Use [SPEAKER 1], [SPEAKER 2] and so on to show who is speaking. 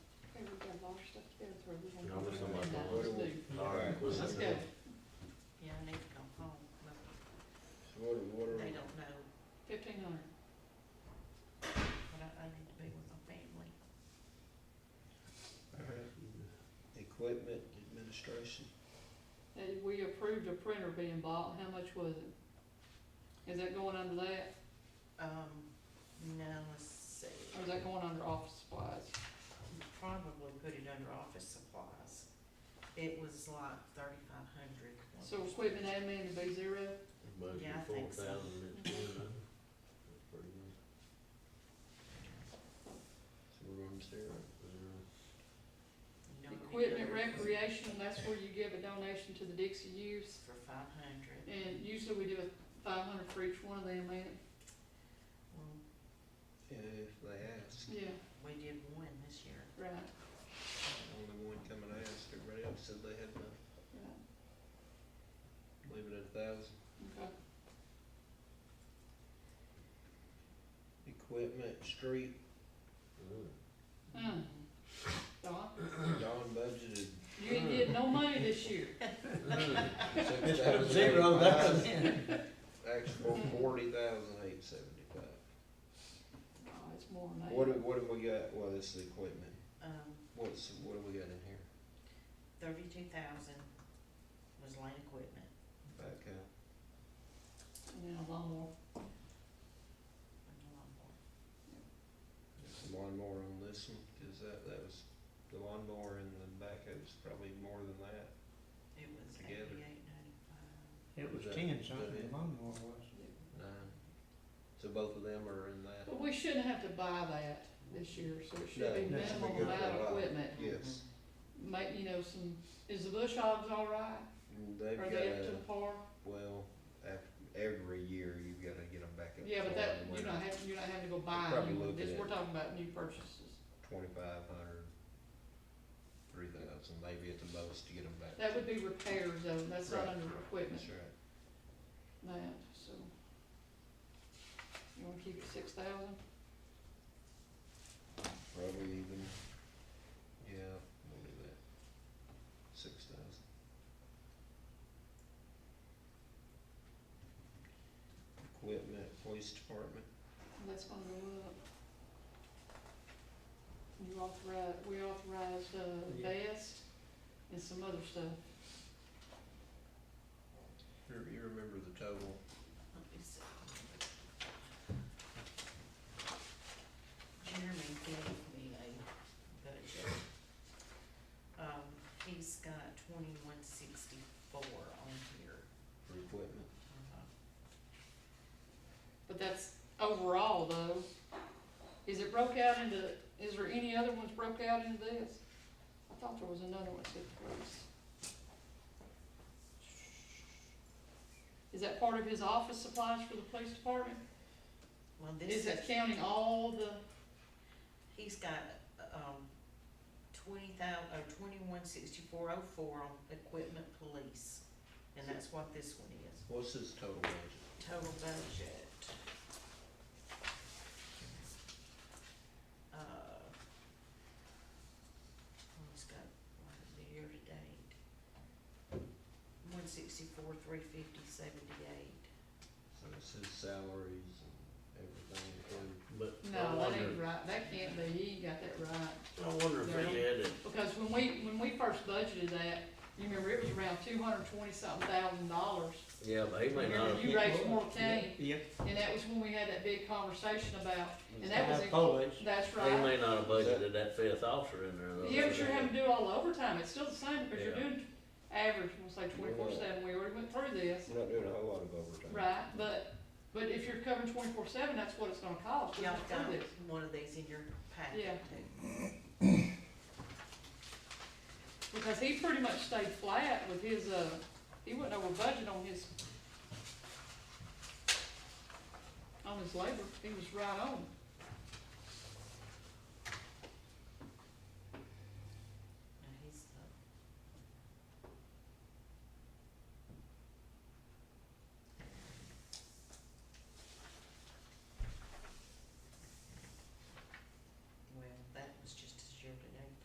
[SPEAKER 1] Alright.
[SPEAKER 2] Let's go.
[SPEAKER 3] Yeah, I need to go home, but
[SPEAKER 1] Water, water.
[SPEAKER 3] they don't know,
[SPEAKER 2] Fifteen hundred.
[SPEAKER 3] but I, I need to be with my family.
[SPEAKER 1] Equipment administration.
[SPEAKER 2] And we approved a printer being bought, how much was it? Is that going under that,
[SPEAKER 3] Um, now, let's see,
[SPEAKER 2] or Oh, is that going under office supplies?
[SPEAKER 3] probably put it under office supplies. It was like thirty-five hundred.
[SPEAKER 2] So equipment admin to be zero,
[SPEAKER 3] Yeah, I think
[SPEAKER 1] So
[SPEAKER 3] so.
[SPEAKER 1] we're on zero.
[SPEAKER 3] You know, we did
[SPEAKER 2] equipment
[SPEAKER 3] it
[SPEAKER 2] recreational, that's where you give a donation to the Dixie Youth.
[SPEAKER 3] For five hundred.
[SPEAKER 2] And usually we do a five hundred for each one of them, ain't it?
[SPEAKER 1] Yeah, if they ask,
[SPEAKER 2] Yeah,
[SPEAKER 3] We did one this year.
[SPEAKER 2] right,
[SPEAKER 1] only one coming to ask, everybody else said they had enough,
[SPEAKER 2] right,
[SPEAKER 1] leave it at a thousand.
[SPEAKER 2] okay.
[SPEAKER 1] Equipment, street,
[SPEAKER 2] Hmm. Don,
[SPEAKER 1] Don budgeted
[SPEAKER 2] you ain't getting no money this year.
[SPEAKER 1] six
[SPEAKER 4] Instead
[SPEAKER 1] thousand.
[SPEAKER 4] of zero, that's
[SPEAKER 1] Actual forty thousand eight seventy-five.
[SPEAKER 2] No, it's more than that.
[SPEAKER 1] What, do- what have we got, well, this is equipment,
[SPEAKER 3] Um,
[SPEAKER 1] what's, what have we got in here?
[SPEAKER 3] thirty-two thousand was land equipment.
[SPEAKER 1] Backhoe.
[SPEAKER 2] And then a lawnmower,
[SPEAKER 3] and a lot more.
[SPEAKER 1] Some lawnmower on this one, cause that, that was, the lawnmower and the backhoe was probably more than that.
[SPEAKER 3] It was
[SPEAKER 1] Together.
[SPEAKER 3] eighty-eight ninety-five.
[SPEAKER 4] It was
[SPEAKER 1] Is that-
[SPEAKER 4] ten
[SPEAKER 1] is that
[SPEAKER 4] something,
[SPEAKER 1] it?
[SPEAKER 4] the lawnmower was.
[SPEAKER 1] Nine. So both of them are in that?
[SPEAKER 2] but we shouldn't have to buy that this year, so it should be
[SPEAKER 4] no,
[SPEAKER 1] No,
[SPEAKER 4] it should be
[SPEAKER 2] minimal
[SPEAKER 4] good
[SPEAKER 2] amount
[SPEAKER 1] for a
[SPEAKER 2] of
[SPEAKER 1] while.
[SPEAKER 2] equipment.
[SPEAKER 1] Yes.
[SPEAKER 2] Make, you know, some, is the bush hogs all right?
[SPEAKER 1] And They've
[SPEAKER 2] Are
[SPEAKER 1] got
[SPEAKER 2] they up
[SPEAKER 1] a,
[SPEAKER 2] to par?
[SPEAKER 1] well, af- every year you've gotta get them back up.
[SPEAKER 2] Yeah, but
[SPEAKER 1] to
[SPEAKER 2] that,
[SPEAKER 1] one
[SPEAKER 2] you're
[SPEAKER 1] winter,
[SPEAKER 2] not having, you're not having to go buy
[SPEAKER 1] Probably
[SPEAKER 2] new,
[SPEAKER 1] looking
[SPEAKER 2] this,
[SPEAKER 1] at-
[SPEAKER 2] we're talking about new purchases.
[SPEAKER 1] 2,500, 3,000, maybe at the most to get them back.
[SPEAKER 2] That would be repairs though, that's not
[SPEAKER 1] Right.
[SPEAKER 2] under equipment,
[SPEAKER 1] That's right.
[SPEAKER 2] that, so. You wanna keep it six thousand?
[SPEAKER 1] Probably even, yeah, we'll do that. Six thousand. Equipment, police department,
[SPEAKER 2] That's gonna go up. You authorize, we authorized, uh,
[SPEAKER 4] Yeah.
[SPEAKER 2] vest and some other stuff.
[SPEAKER 1] you, you remember the total?
[SPEAKER 3] Let me see. Jeremy gave me a budget. Um, he's got twenty-one sixty-four on here. Uh,
[SPEAKER 1] for equipment.
[SPEAKER 2] But that's overall though. Is it broke out into, is there any other ones broke out into this? I thought there was another one that said police. Is that part of his office supplies for the police department?
[SPEAKER 3] Well,
[SPEAKER 2] Is
[SPEAKER 3] this
[SPEAKER 2] that
[SPEAKER 3] is,
[SPEAKER 2] counting all the,
[SPEAKER 3] he's got, um, twenty thou- uh, twenty-one sixty-four oh four on equipment police. And that's what this one is.
[SPEAKER 1] What's his total budget?
[SPEAKER 3] total budget. Uh, One's got, what is the year to date? One sixty-four, three fifty, seventy-eight.
[SPEAKER 1] So it's his salaries and everything included.
[SPEAKER 4] But I
[SPEAKER 2] no, that
[SPEAKER 4] wonder,
[SPEAKER 2] ain't right, that can't be, he ain't got that right.
[SPEAKER 4] I wonder if
[SPEAKER 2] Yeah.
[SPEAKER 4] he had it,
[SPEAKER 2] Because when we, when we first budgeted that, you remember it was around two hundred twenty something thousand dollars.
[SPEAKER 4] yeah, but he may
[SPEAKER 2] Remember
[SPEAKER 4] not have.
[SPEAKER 2] you raised more cane,
[SPEAKER 4] Yeah.
[SPEAKER 2] and that was when we had that big conversation about And that was
[SPEAKER 4] Have
[SPEAKER 2] in-
[SPEAKER 4] Polish,
[SPEAKER 2] That's
[SPEAKER 4] he
[SPEAKER 2] right.
[SPEAKER 4] may not have budgeted that fifth officer in there though.
[SPEAKER 2] Yeah, but you're having to do all the overtime, it's still the same, because you're
[SPEAKER 4] Uh, Yeah.
[SPEAKER 2] doing average, we'll say twenty-four seven, we already went through this,
[SPEAKER 1] We're not doing a whole lot of overtime.
[SPEAKER 2] right, but, but if you're covering twenty-four seven, that's what it's gonna cost, we
[SPEAKER 3] Y'all
[SPEAKER 2] went
[SPEAKER 3] got
[SPEAKER 2] through this.
[SPEAKER 3] one of these in your packet
[SPEAKER 2] Oh, Yeah.
[SPEAKER 3] too.
[SPEAKER 2] Because he pretty much stayed flat with his, uh, he went over budget on his, on his labor, he was right on.